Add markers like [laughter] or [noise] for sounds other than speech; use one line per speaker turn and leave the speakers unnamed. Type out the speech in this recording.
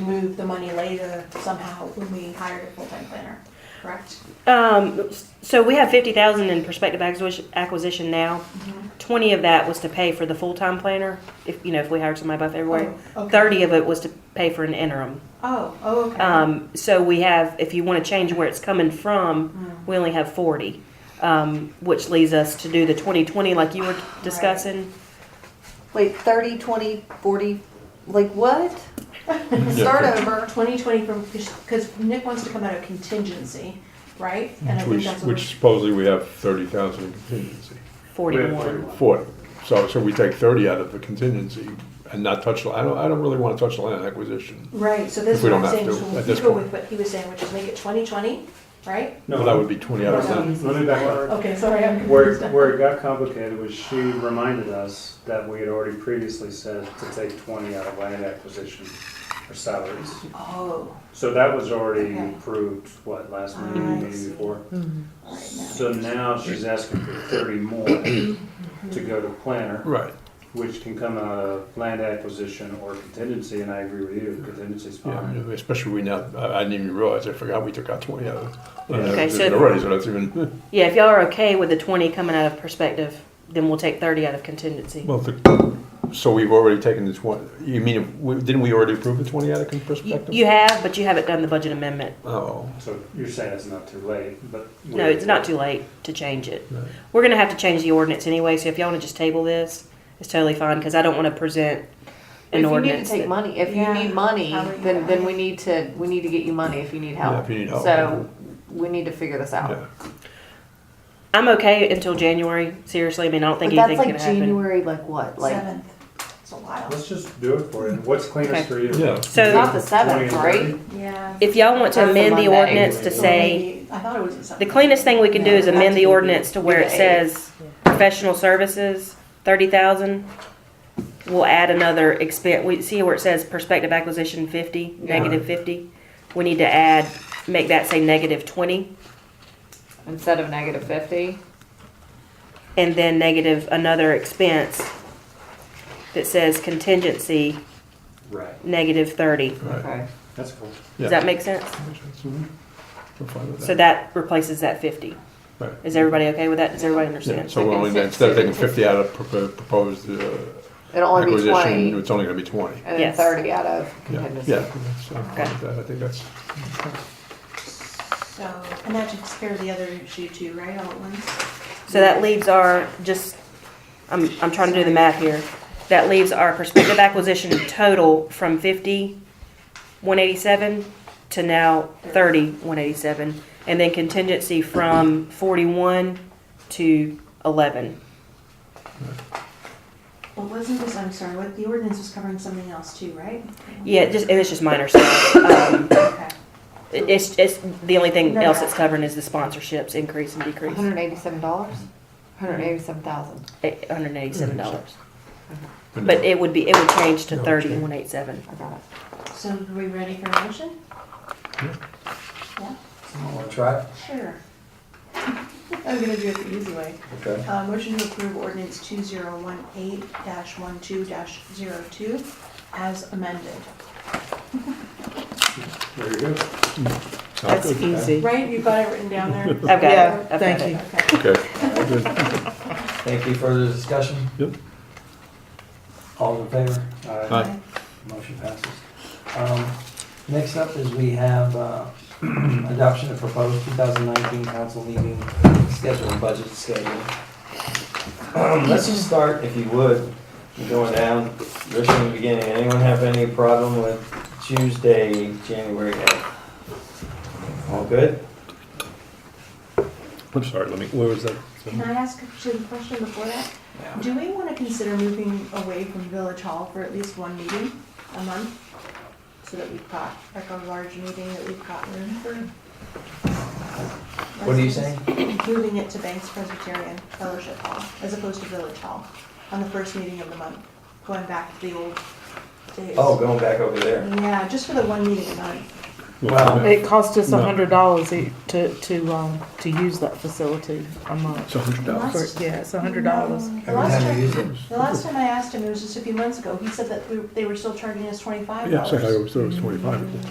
move the money later somehow when we hired a full-time planner, correct?
Um, so we have fifty thousand in prospective acquisition- acquisition now.
Mm-hmm.
Twenty of that was to pay for the full-time planner, if, you know, if we hired somebody by February.
Oh, okay.
Thirty of it was to pay for an interim.
Oh, oh, okay.
Um, so we have, if you wanna change where it's coming
Mm.
from, we only have forty. Um, which leads us to do the twenty-twenty like you were discussing.
Wait, 30, 20, 40, like what? Start over.
Twenty twenty from, because Nick wants to come out of contingency, right? And I think
Mm-hmm. Which,
that's what
which supposedly we have thirty thousand in contingency.
Forty
We have
more.
Forty. So, so we take thirty out of the contingency and not touch, I don't, I don't really wanna touch the land acquisition.
Right, so this is
If we
what
don't
I'm
have
saying,
to,
so
at
we
this
go
point.
with what he was saying, which is make it twenty twenty, right?
Well, that would be twenty out of
No,
that.
Let me back up.
Okay, sorry, I'm
Where,
confused.
where it got complicated was she reminded us that we had already previously said to take twenty out of land acquisition for salaries.
Oh,
So that was already
Okay. Ah,
approved, what, last
I
meeting,
see.
meeting before?
all right, now.
So now she's asking for thirty
[coughs]
more to go to planner,
Right,
which can come out of land acquisition or contingency, and I agree with you, contingency's
yeah,
fine.
especially we now, I, I didn't even realize, I forgot we took out twenty out of the land
Okay, so-
acquisition already, so that's even, [laughs]
Yeah, if y'all are okay with the twenty coming out of perspective, then we'll take thirty out of contingency.
well, the, so we've already taken the twenty, you mean, we- didn't we already approve the twenty out of
You,
perspective?
you have, but you haven't done the budget amendment.
Oh,
So you're saying it's not too late, but.
No, it's not too late to change it.
right.
We're gonna have to change the ordinance anyway, so if y'all wanna just table this, it's totally fine, because I don't wanna present
If
an
you need to
ordinance.
take
that-
money, if you
Yeah.
need money,
How are you
then, then
gonna-
we need to, we need to get you money if you need help.
Yeah, if you need help.
So we need to figure this out.
Oh.
Yeah.
I'm okay until January, seriously, I mean, I don't
But
think
that's
anything's
like
gonna happen.
January, like what? Like,
Seventh, it's a while.
Let's just do it for you. What's
Okay.
cleanest for you?
Yeah.
it's not
So,
the seventh,
20 and
right?
30?
Yeah.
if y'all want to
That's the
amend the
Monday.
ordinance to
So
say,
maybe- I thought it was the
the
seventh.
cleanest thing we can do is
Yeah,
amend the
that's-
ordinance to where it
Yeah.
says professional services, thirty thousand. We'll add another expense, we see where it says prospective acquisition fifty,
Yeah.
negative fifty. We need to add, make that say negative twenty.
Instead of negative 50?
and then negative another expense that says contingency
Right,
negative 30.
Right.
Okay.
that's cool.
Yeah.
Does that make sense?
We're fine with
So that replaces that 50.
Right.
Is everybody okay with that? Does everybody
Yeah,
understand?
so we're only,
Second,
instead of taking
second.
fifty out of propo- proposed uh,
Oh,
It'll only be 20
acquisition,
and
it's only gonna be twenty.
then
Yes.
30 out of
Yeah,
contingency.
yeah, that's, I'm fine with that. I think that's,
So, and that takes care of the other issue too, right, all at once?
So that leaves our just I'm I'm trying to do the math here. That leaves our prospective acquisition total from 50 187 to now 30 187 and then contingency from 41 to 11.
Well, wasn't this, I'm sorry, what, the ordinance was covering something else too, right?
Yeah, just and it's just minor stuff. Um,
Okay.
It- It's, it's, the only thing
No,
else
no.
it's covering is the sponsorships increase and decrease,
$187? 187,000.
eight hundred and eighty-seven dollars. But
but
it would be, it would change to
No,
thirty,
change.
one eight seven.
I got it.
So are we ready for a motion? Yeah?
Want to try it?
Sure. [laughs] I'm gonna do it the easy way.
Okay.
Uh, motion to approve ordinance two zero one eight dash one two dash zero two as amended.
There you go.
That's easy.
Right, you've got it written down there? I've
got it. Yeah, I've got thank it. you.
Okay.
[laughs] Okay.
Thank you. Further discussion?
Yep.
All in favor?
All right.
Aye.
Motion passes. Um, Next up is we have uh, [clears throat] adoption of proposed 2019 council meeting schedule and budget schedule. Um, Let's just start, if you would, going down, just from the beginning. Anyone have any problem with Tuesday, January 8th? All good?
I'm sorry, let me, where was that?
Can I ask actually a question before that? Do we wanna consider moving away from Village Hall for at least one meeting a month? So that we've got, like a large meeting that we've got room for?
What are you saying?
Moving it to Banks Presbyterian Fellowship Hall as opposed to Village Hall on the first meeting of the month, going back to the old days.
Oh, going back over there.
Yeah, just for the one meeting a month.
Well,
It cost us
No.
a hundred dollars e- to, to, um, to use that facility a month.
It's a hundred dollars.
For- Yeah, it's a hundred dollars.
The
Every
last
time you
time,
use it.
the last time I asked him, it was just a few months ago, he said that we, they were still charging us twenty-five
Yeah,
dollars.
it's like I always thought it was twenty-five.